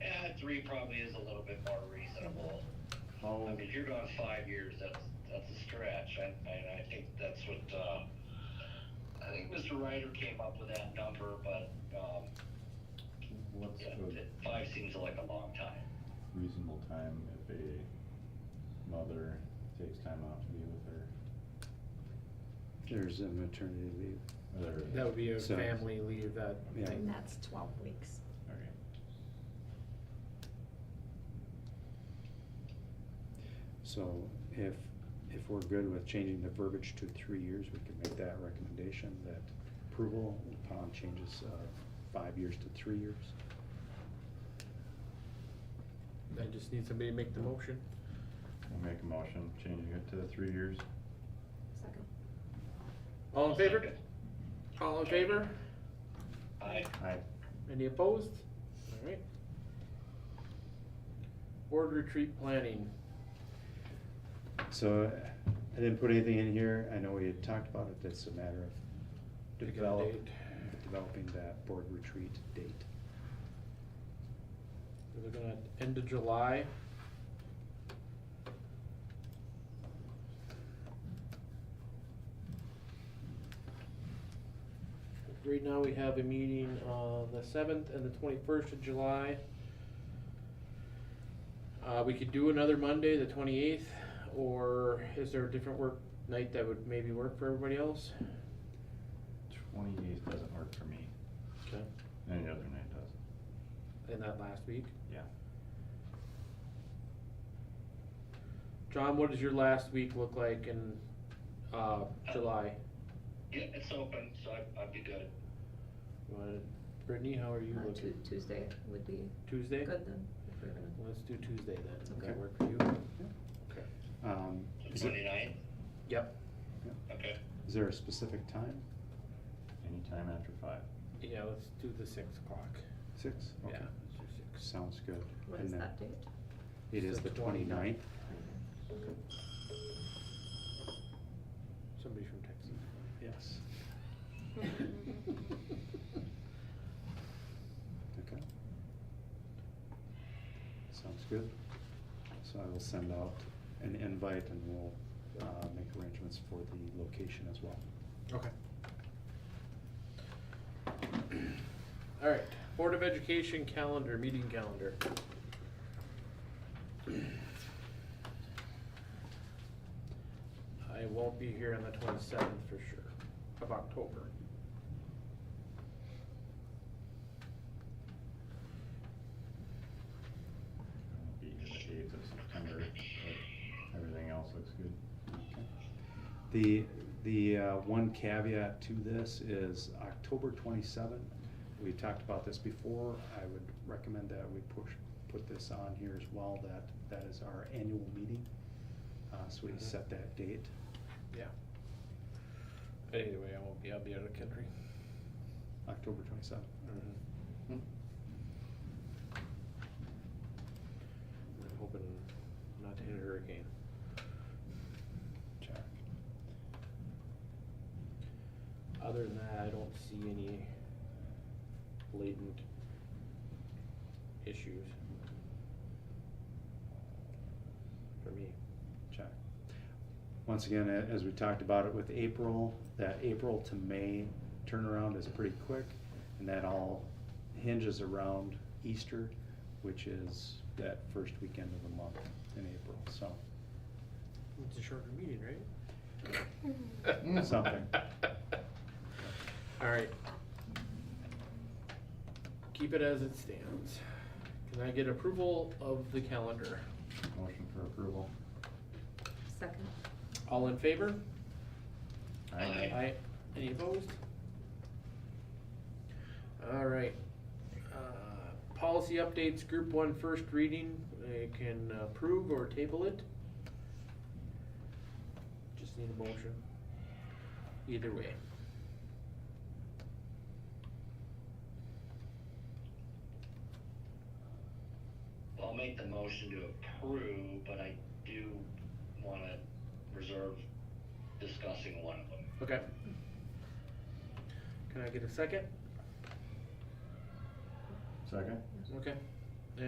Eh, three probably is a little bit more reasonable. How, I mean, if you're going five years, that's, that's a stretch, I, I, I think that's what, uh, I think Mr. Ryder came up with that number, but, um, what's yeah, the it- five seems like a long time. reasonable time if a mother takes time out to be with her? There's a maternity leave. Their- That would be a So- family leave that, Yeah. thing. And that's twelve weeks. Okay. So if, if we're good with changing the verbiage to three years, we can make that recommendation that approval upon changes of five years to three years. I just need somebody to make the motion. I'll make a motion, changing it to three years. Second. All in favor? All in favor? I, Aye. Any opposed? Alright. Board retreat planning. So uh, I didn't put anything in here. I know we had talked about it. That's a matter of Pick a develop, date. developing that board retreat date. We're looking at end of July. Right now, we have a meeting on the seventh and the twenty-first of July. Uh, we could do another Monday, the twenty-eighth, or is there a different work night that would maybe work for everybody else? Twenty-eighth doesn't work for me. Okay. Any other night does. In that last week? Yeah. John, what does your last week look like in, uh, July? yeah, it's open, so I, I'd be good. You wanna- Brittany, how are you Uh, Tu- looking? Tuesday would be Tuesday? good then, if we're gonna, Let's do Tuesday then. Does that Okay. work for you? Um, The Is it- twenty-ninth? Yep. Okay, is there a specific time? Anytime after five. Yeah, let's do the six o'clock. Six? Okay. Yeah, let's do six. Sounds good. what And is then that date? It is the The twenty-ninth. 29th. Somebody from Texas. Yes. Okay. Sounds good. So I will send out an invite and we'll uh, make arrangements for the location as well. Okay. All right, Board of Education calendar, meeting calendar. I won't be here on the twenty-seventh for sure, of October. I'll Be the eighth of September, but everything else looks good. Okay. The, the uh, one caveat to this is October 27. We talked about this before. I would recommend that we push, put this on here as well, that, that is our annual meeting. Uh, So we Mhm. set that date. Yeah. Either way, I won't be, I'll be out of the country. October 27th. I'm hoping not to hit a hurricane. Check. Other than that, I don't see any blatant issues. For me. Check. Once again, a- as we talked about it with April, that April to May turnaround is pretty quick. And that all hinges around Easter, which is that first weekend of the month in April, so. It's a shorter meeting, Mm. right? Something. Alright. Keep it as it stands. Can I get approval of the calendar? Motion for approval. Second. All in favor? Aye. Aye. Any opposed? All right. Uh, Policy updates, group one first reading, I can approve or table it. Just need a motion. Either way. I'll make the motion to approve, but I do wanna reserve discussing one of them. Okay. Can I get a second? Second? Okay.